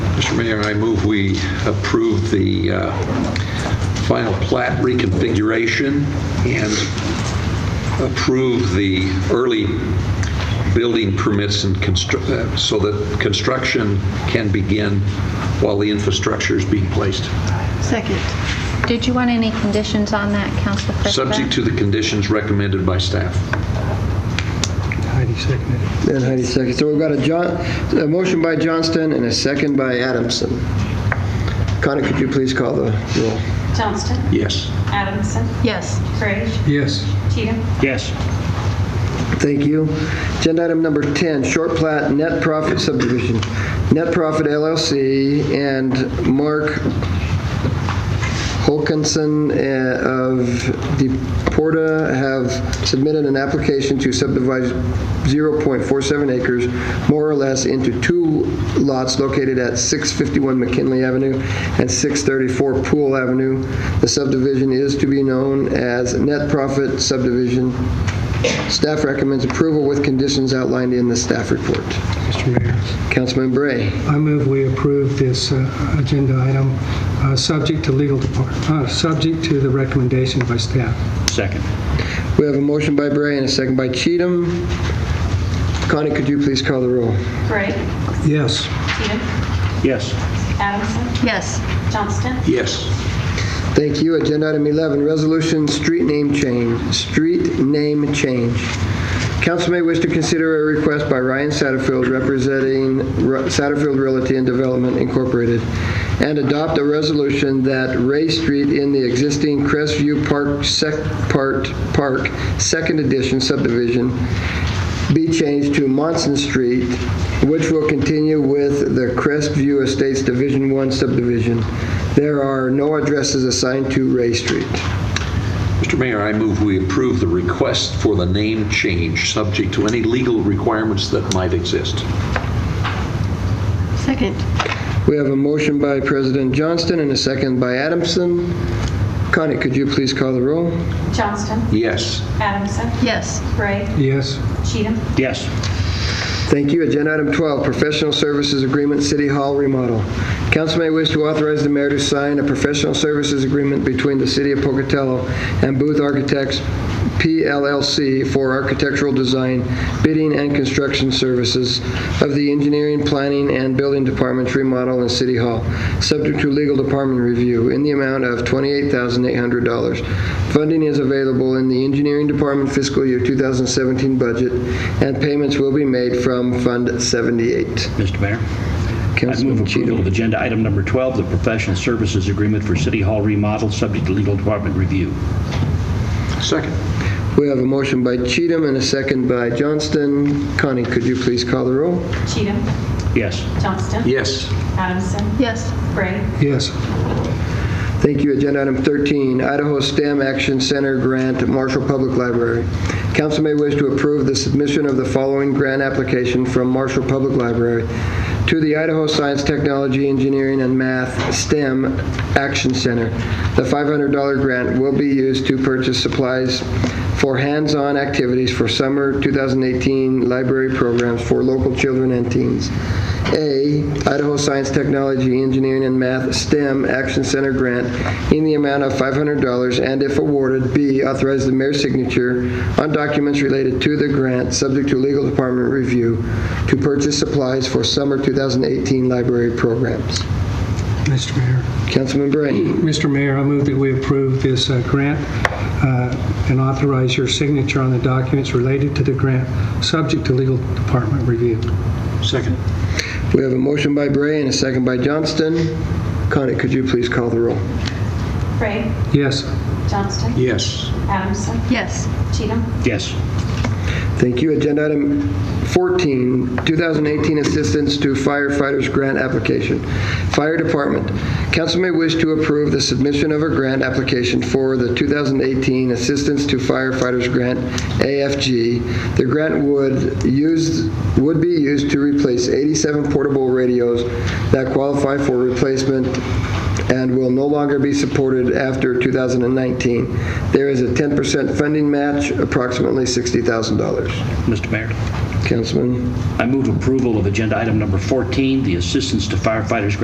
Mr. Mayor, I move we approve the uh, final plat reconfiguration and approve the early building permits and constru- uh, so that construction can begin while the infrastructure is being placed, Second. Did you want any conditions on that, Council President? subject to the conditions recommended by staff. Heidi seconded it. And Heidi second. So we've got a John, a motion by Johnston and a second by Adamson. Connie, could you please call the roll? Johnston. Yes. Adamson. Yes. Frazier. Yes. Cheatham. Yes. Thank you. Agenda item number 10, short plat net profit subdivision. Net Profit LLC and Mark Holkinson eh, of Deporta have submitted an application to subdivide 0.47 acres, more or less, into two lots located at 651 McKinley Avenue and 634 Pool Avenue. The subdivision is to be known as Net Profit Subdivision. Staff recommends approval with conditions outlined in the staff report. Mr. Mayor, Councilman Bray. I move we approve this uh, agenda item, uh, subject to legal department, subject to the recommendation by staff. Second. We have a motion by Bray and a second by Cheatham. Connie, could you please call the roll? Bray. Yes. Cheatham. Yes. Adamson. Yes. Johnston. Yes. Thank you. Agenda item 11, resolution, street name change, street name change. Council may wish to consider a request by Ryan Satterfield representing Ru- Satterfield Realty and Development Incorporated and adopt a resolution that Ray Street in the existing Crestview Park, Sec, Part, Park, Second Edition subdivision be changed to Monson Street, which will continue with the Crestview Estates Division 1 subdivision. There are no addresses assigned to Ray Street. Mr. Mayor, I move we approve the request for the name change, subject to any legal requirements that might exist. Second. We have a motion by President Johnston and a second by Adamson. Connie, could you please call the roll? Johnston. Yes. Adamson. Yes. Bray. Yes. Cheatham. Yes. Thank you. Agenda item 12, professional services agreement, City Hall remodel. Council may wish to authorize the mayor to sign a professional services agreement between the city of Pocatello and Booth Architects PLLC for architectural design, bidding, and construction services of the engineering, planning, and building departments remodel in City Hall, subject to legal department review, in the amount of $28,800. Funding is available in the engineering department fiscal year 2017 budget, and payments will be made from Fund 78. Mr. Mayor, I move Councilman approval of Cheatham. agenda item number 12, the professional services agreement for City Hall remodel, subject to legal department review. Second. We have a motion by Cheatham and a second by Johnston. Connie, could you please call the roll? Cheatham. Yes. Johnston. Yes. Adamson. Yes. Bray. Yes. Thank you. Agenda item 13, Idaho STEM Action Center Grant, Marshall Public Library. Council may wish to approve the submission of the following grant application from Marshall Public Library to the Idaho Science, Technology, Engineering, and Math STEM Action Center. The $500 grant will be used to purchase supplies for hands-on activities for summer 2018 library programs for local children and teens. A, Idaho Science, Technology, Engineering, and Math STEM Action Center grant in the amount of $500, and if awarded, B, authorize the mayor's signature on documents related to the grant, subject to legal department review, to purchase supplies for summer 2018 library programs. Mr. Mayor. Councilman Bray. Mr. Mayor, I move that we approve this uh, grant uh, and authorize your signature on the documents related to the grant, subject to legal department review. Second. We have a motion by Bray and a second by Johnston. Connie, could you please call the roll? Bray. Yes. Johnston. Yes. Adamson. Yes. Cheatham. Yes. Thank you. Agenda item 14, 2018 Assistance to Firefighters Grant Application. Fire Department. Council may wish to approve the submission of a grant application for the 2018 Assistance to Firefighters Grant, AFG. The grant would use, would be used to replace 87 portable radios that qualify for replacement and will no longer be supported after 2019. There is a 10% funding match, approximately $60,000. Mr. Mayor, Councilman? I move approval of agenda item number 14, the assistance to firefighters grant